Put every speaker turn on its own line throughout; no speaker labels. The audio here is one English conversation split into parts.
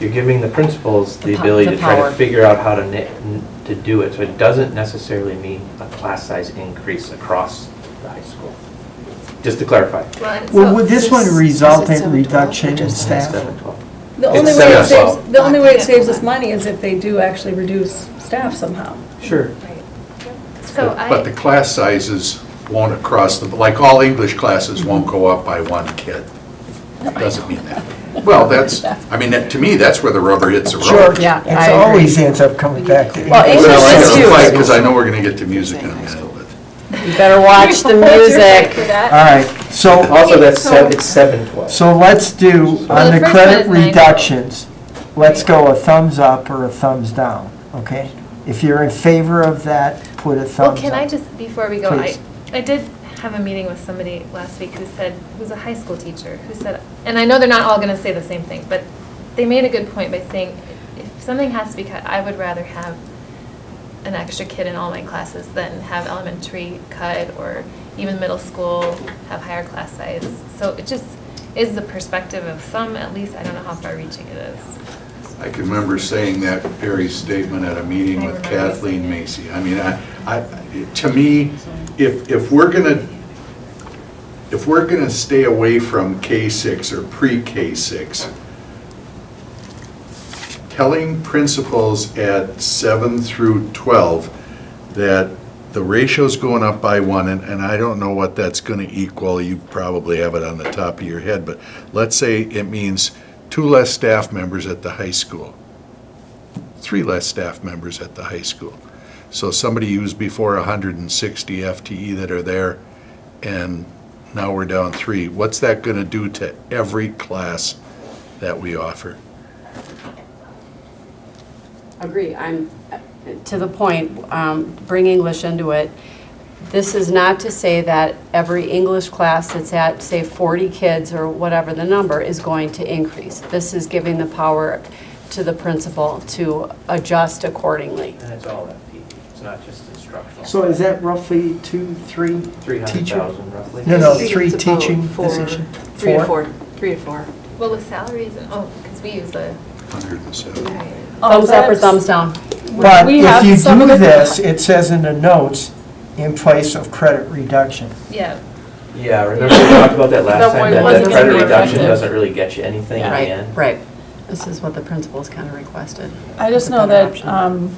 you're giving the principals
The
the
po-
ability
the
to try
power.
to figure out how to, na- n- to do it. So it doesn't necessarily mean a class size increase across the high school. Just to clarify.
Well, would this one result
Is it
in
seven twelve?
reduction in staff?
Seven, twelve.
The
It's
only way
seven
it
to
saves,
twelve.
the only way it saves us money is if they do actually reduce staff somehow.
Sure.
So
But the
I,
class sizes won't across the, like all English classes won't go up by one kid. Doesn't mean that. Well, that's, I mean, that- to me, that's where the rubber hits the road.
Sure,
Yeah,
it
I agree.
always ends up coming back to
Well,
English.
English is
Well, I
huge.
gotta fight, because I know we're gonna get to music in a minute, but.
You better watch the music.
All right, Uh, so,
Also, that's seven, it's seven, twelve.
so let's do,
Well,
on
the
the
first
credit
one is nine.
reductions, let's go a thumbs up or a thumbs down, okay? If you're in favor of that, put a
well,
thumbs
can I
up.
just, before we go, I,
Please.
I did have a meeting with somebody last week who said, who's a high school teacher, who said, and I know they're not all gonna say the same thing, but they made a good point by saying, if something has to be cut, I would rather have an extra kid in all my classes than have elementary cut or even middle school have higher class size. So it just is the perspective of some, at least, I don't know how far reaching it is.
I can remember saying that Perry's statement at a meeting with Kathleen Macy. I mean, I, I, to me, if, if we're gonna, if we're gonna stay away from K-6 or pre-K-6, telling principals at 7 through 12 that the ratio's going up by one, and, and I don't know what that's gonna equal, you probably have it on the top of your head, but let's say it means two less staff members at the high school, three less staff members at the high school. So somebody used before 160 FTE E that are there, and now we're down three. What's that going to do to every class that we offer?
Agree, I'm, to the point, um, bring English into it. This is not to say that every English class that's at, say, 40 kids or whatever the number is going to increase. This is giving the power to the principal to adjust accordingly.
And it's all FTE, it's not just instructional.
So is that roughly two, three?
Three hundred
teacher-
thousand roughly.
No, no,
think
three
it's about
teaching
four-
position.
Three to four, three to four.
Well, with salaries and, oh, because we use a
170.
Oh,
Thumbs up or thumbs down?
But
We
if
have
you
some
do
of it-
this, it says in the notes, in place of credit reduction.
Yeah,
Yeah, remember we talked about that last
That
time,
one
that that
wasn't
credit
very
reduction
effective.
doesn't really get you anything in the end.
Right, this is what the principals kind of requested.
I
It's
just
a
know
better
that
option.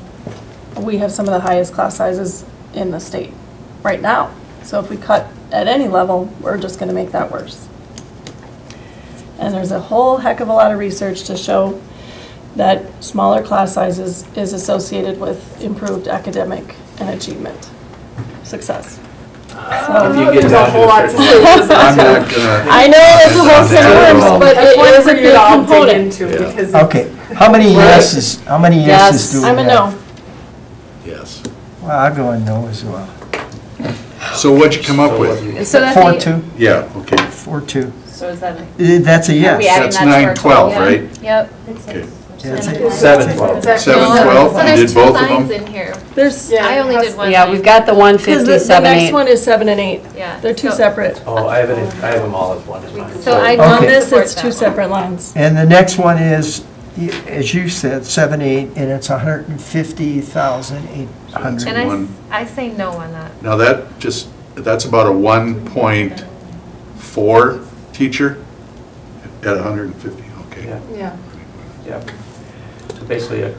um, we have some of the highest class sizes in the state right now. So if we cut at any level, we're just going to make that worse. And there's a whole heck of a lot of research to show that smaller class sizes is associated with improved academic and achievement success.
If you get down to a certain level.
I'm not gonna.
I know it's a whole set of worms, but it is a big component.
into
Yeah.
because.
Okay, how many yeses, how many yeses
Yes,
do we have?
I'm a no.
Yes.
Well, I'll go a no as well.
So what'd you come up
So what do
with?
you-
so that's.
Four,
eight-
two,
Yeah, okay.
four, two.
So is that?
Eh, That's a yes.
That's 912, right?
Yep.
Okay.
That's it.
Seven, twelve.
Seven,
So-
twelve,
so
you
there's
did
two
both of
lines
them?
in here.
There's,
Yeah,
I only
it
did
has-
one.
Yeah, we've got the
because the
150,
the
7,
next
8.
one is seven and eight.
Yeah,
They're two
so-
separate.
Oh, I have it, in- I have them all as one as mine.
So I
Okay.
On
don't
this,
support
it's
that
two
one.
separate lines.
And the next one is, y- as you said, seven, eight, and it's a hundred and fifty thousand eight hundred.
And I, s-
One.
I say no on that.
Now that just, that's about a 1.4 teacher at 150, okay.
Yeah,
Yeah.
yeah. So basically, a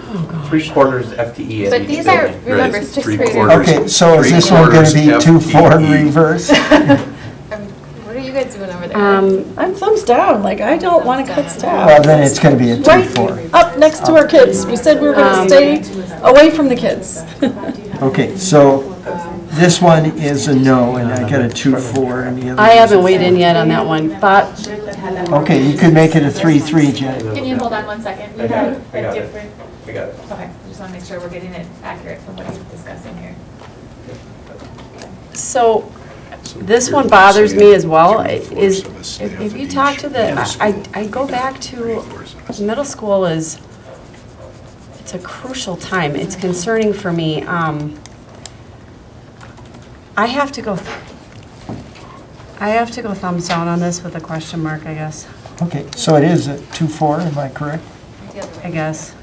three quarters FTE at
But
each
these are,
building.
remember,
Right,
sixth
three
graders.
quarters.
Okay, so is this one gonna be
Three-quarters
two, four in
FTE.
reverse?
Um, What are you guys doing over there?
Um,
I'm thumbs down, like, I don't want to cut
Well,
staff.
then it's gonna be a two,
Right
four.
up next to our kids. We said we were going to
Um,
stay away from the kids.
Okay, so this one is a no, and I got a two, four, and the other.
I haven't weighed in yet on that one, but
Okay, you could make it a three, three, Jen.
Can you hold on one second?
I
You
got it,
have
I got
a
it.
different,
I got it.
okay, just want to make sure we're getting it accurate from what you're discussing here.
So,
So
this
we're
one bothers me as well,
saying
is,
three-fourths of a
if if you
staff
talk
each
to the,
middle
I,
school,
I go back to,
three-fourths of a staff.
middle school is, it's a crucial time, it's concerning for me. Um, I have to go, th- I have to go thumbs down on this with a question mark, I guess.
Okay, so it is a two, four, am I correct?
the other way.
I guess.